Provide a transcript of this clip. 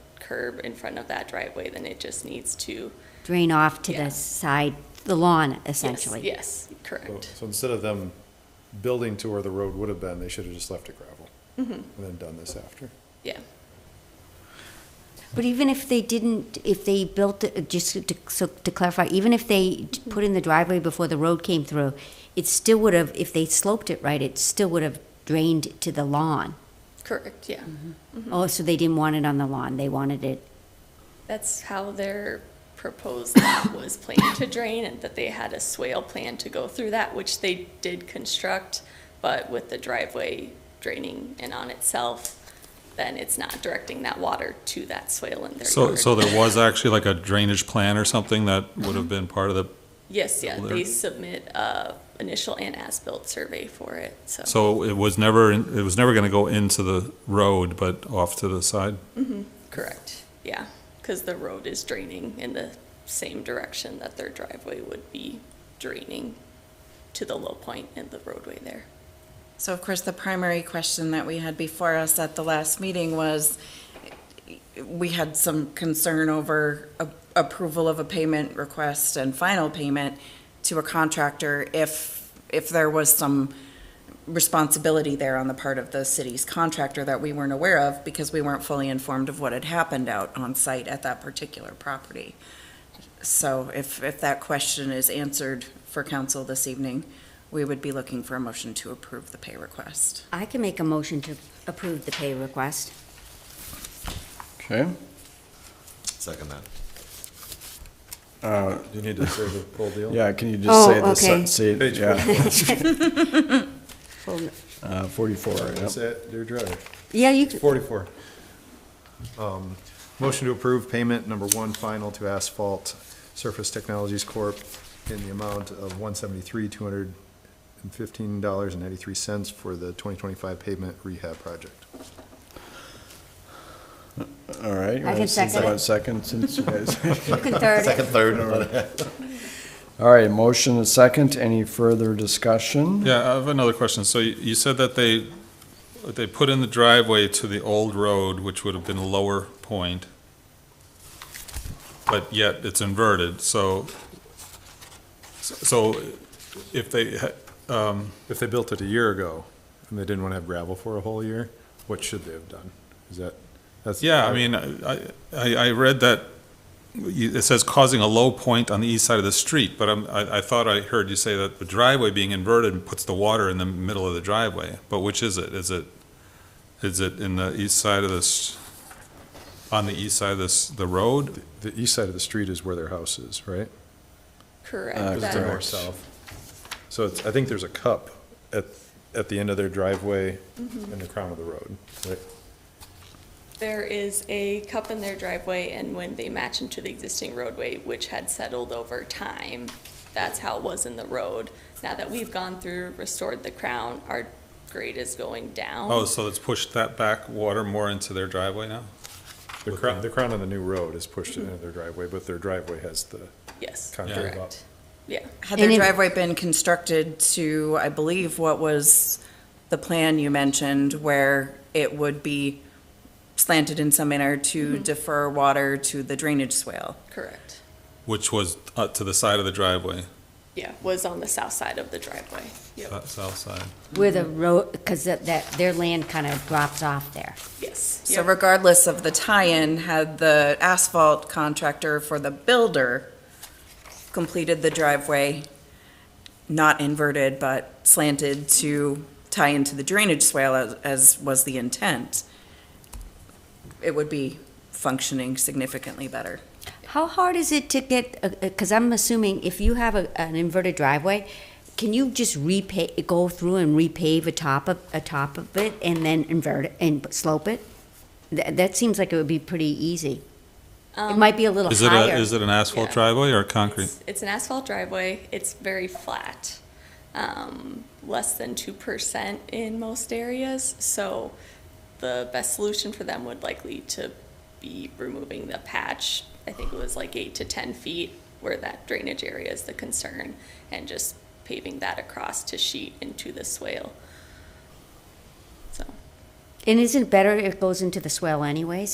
curb in front of that driveway, then it just needs to. drain off to Yeah. the side, the lawn yes, essentially. Yes, So- correct. So instead of them building to where the road would have been, they should have just left it gravel. And then done this after. Yeah. But even if they didn't, if they built, it- just to, so to clarify, even if they d- put in the driveway before the road came through, it still would have, if they sloped it right, it still would have drained to the lawn. Correct, yeah. Mm-hmm. Oh, so they didn't want it on the lawn, they wanted it, That's how their proposed lot was planned to drain and that they had a swale plan to go through that, which they did construct, but with the driveway draining in on itself, then it's not directing that water to that swale in their So, yard. so there was actually like a drainage plan or something that would have been part of the, Yes, yeah, they There- submit a initial and as-built survey for it, so. so it was never, in- it was never gonna go into the road, but off to the side? Correct, yeah, because the road is draining in the same direction that their driveway would be draining to the low point in the roadway there. So of course, the primary question that we had before us at the last meeting was, we had some concern over a- approval of a payment request and final payment to a contractor if, if there was some responsibility there on the part of the city's contractor that we weren't aware of because we weren't fully informed of what had happened out on site at that particular property. So if, if that question is answered for council this evening, we would be looking for a motion to approve the pay request. I can make a motion to approve the pay request. Okay. Second that. Uh, Do you need to say the full deal? Yeah, can you just Oh, say the, okay. se- say, Page yeah, Well, uh, forty-four, That's yep. it, dear driver. Yeah, you, c- 44. Um, Motion to approve payment number one final to Asphalt Surface Technologies Corp. in the amount of $173,215.93 for the 2025 pavement rehab project. all right. I you wanna- can since second it. want Second, since you guys. you can third it. Second, third. All right, motion and second, any further discussion? Yeah, I have another question. So you you said that they, they put in the driveway to the old road, which would have been a lower point, but yet it's inverted, so, so if they, ha- um, If they built it a year ago and they didn't want to have gravel for a whole year, what should they have done? Is that, that's. yeah, I mean, I, I, I read that, you- it says causing a low point on the east side of the street, but I'm- I, I thought I heard you say that the driveway being inverted puts the water in the middle of the driveway, but which is it? Is it, is it in the east side of this, on the east side of this, the road? The east side of the street is where their house is, right? Uh, Correct. Because they're that- more Correct. south. So it's, I think there's a cup at, at the end of their driveway in the crown of the road, right? There is a cup in their driveway, and when they match into the existing roadway, which had settled over time, that's how it was in the road. Now that we've gone through, restored the crown, our grade is going down. Oh, so it's pushed that back water more into their driveway now? The crown, the crown of the new road is pushed into their driveway, but their driveway has the, Yes, Kind of gave up. correct. Yeah, Had And if- their driveway been constructed to, I believe, what was the plan you mentioned, where it would be slanted in some manner to defer water to the drainage swale? correct. Which was uh, to the side of the driveway, Yeah, was on the south side of the driveway. Yep, that south side. Where the road, because that, that- their land kind of drops off there. yes. So Yep. regardless of the tie-in, had the asphalt contractor for the builder completed the driveway, not inverted, but slanted to tie into the drainage swale as, as was the intent, it would be functioning significantly better. How hard is it to get, because I'm assuming if you have a, an inverted driveway, can you just repave, go through and repave a top of, a top of it and then invert it and slope it? That, that seems like it would be pretty easy. Um, It might be a little Is it a, higher. is it an asphalt Yeah. driveway or concrete? It's, it's an asphalt driveway. It's very flat, um, less than two percent in most areas. So the best solution for them would likely to be removing the patch. I think it was like eight to ten feet where that drainage area is the concern, and just paving that across to sheet into the swale. So. And isn't it better if it goes into the swell anyways?